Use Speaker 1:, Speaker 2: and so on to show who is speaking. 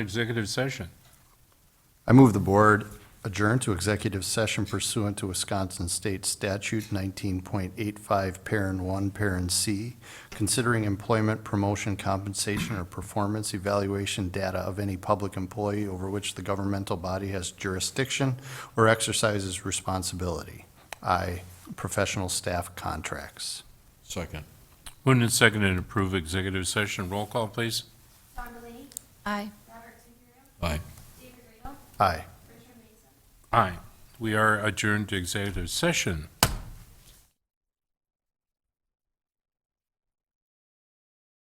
Speaker 1: executive session.
Speaker 2: I move the board adjourn to executive session pursuant to Wisconsin State Statute 19.85, Parent 1, Parent C, considering employment, promotion, compensation, or performance evaluation data of any public employee over which the governmental body has jurisdiction or exercises responsibility. I, professional staff contracts.
Speaker 3: Second.
Speaker 1: Moved and seconded to approve executive session. Roll call, please.
Speaker 4: Don Delaney,
Speaker 5: Aye.
Speaker 4: Robert Timperio,
Speaker 3: Aye.
Speaker 4: David Radel,
Speaker 2: Aye.
Speaker 4: Richard Mason.
Speaker 1: Aye. We are adjourned to executive session.